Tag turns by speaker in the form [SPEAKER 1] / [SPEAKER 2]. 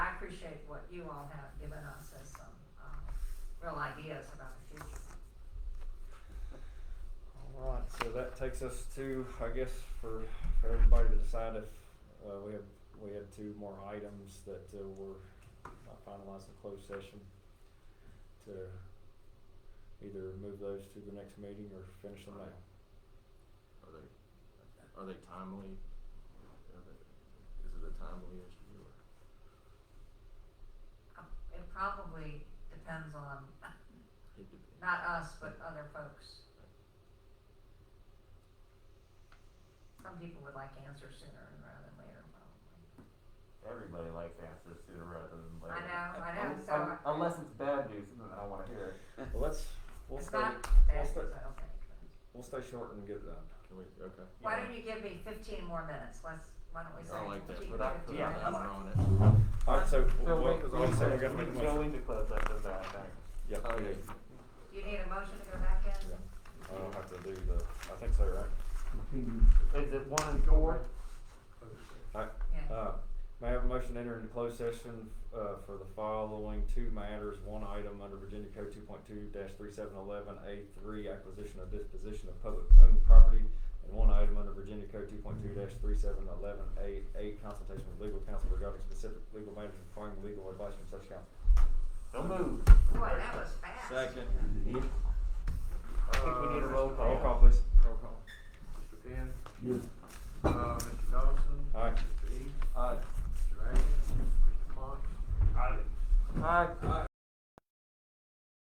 [SPEAKER 1] appreciate what you all have given us as some, uh, real ideas about the future.
[SPEAKER 2] All right, so that takes us to, I guess, for, for everybody to decide if, uh, we have, we had two more items that, uh, were not finalized in closed session to either move those to the next meeting or finish them now.
[SPEAKER 3] Are they, are they timely? Are they, is it a timely issue or?
[SPEAKER 1] Uh, It probably depends on,
[SPEAKER 3] it dep-
[SPEAKER 1] not us, but other folks. Some people would like answers sooner rather than later, probably.
[SPEAKER 4] Everybody likes answers sooner rather than
[SPEAKER 1] I
[SPEAKER 4] later.
[SPEAKER 1] know, I know,
[SPEAKER 4] Un-
[SPEAKER 1] so.
[SPEAKER 4] un- Unless it's bad news, then I wanna hear it.
[SPEAKER 2] Well, let's, we'll
[SPEAKER 1] It's
[SPEAKER 2] stay,
[SPEAKER 1] not
[SPEAKER 2] we'll
[SPEAKER 1] bad,
[SPEAKER 2] stay,
[SPEAKER 1] I don't think.
[SPEAKER 2] we'll stay short and get it done.
[SPEAKER 3] Can we, okay.
[SPEAKER 1] Why don't you give me fifteen more minutes, let's, why don't we say
[SPEAKER 3] I like that,
[SPEAKER 1] 15,
[SPEAKER 3] put that, put
[SPEAKER 1] 15
[SPEAKER 3] an
[SPEAKER 4] Yeah, I'm-
[SPEAKER 3] hour
[SPEAKER 1] minutes?
[SPEAKER 3] on it.
[SPEAKER 2] All right, so
[SPEAKER 4] So
[SPEAKER 2] what,
[SPEAKER 4] we-
[SPEAKER 2] what do you say we
[SPEAKER 4] we-
[SPEAKER 2] gotta make a
[SPEAKER 4] We don't
[SPEAKER 2] motion?
[SPEAKER 4] need to close that, does that, thanks.
[SPEAKER 2] Yeah,
[SPEAKER 3] Oh,
[SPEAKER 2] we
[SPEAKER 3] yeah.
[SPEAKER 2] do.
[SPEAKER 1] You need a motion to go back in?
[SPEAKER 2] Yeah. I don't have to do the, I think so, right?
[SPEAKER 4] Is it one and four?
[SPEAKER 2] All right,
[SPEAKER 1] Yeah.
[SPEAKER 2] Uh, May I have a motion to enter into closed session, uh, for the following two matters, one item under Virginia Code two point two three seven eleven A three, acquisition or disposition of public owned property, and one item under Virginia Code two point two three seven eleven A eight, consultation with legal counsel regarding specific legal matters requiring legal advice from such counsel.
[SPEAKER 4] Don't move.
[SPEAKER 1] Boy, that was fast.
[SPEAKER 4] I think we need a roll
[SPEAKER 2] Roll
[SPEAKER 4] call.
[SPEAKER 2] Uh, call, please.
[SPEAKER 5] Roll call. Mr. Penn? Yes.
[SPEAKER 4] Uh.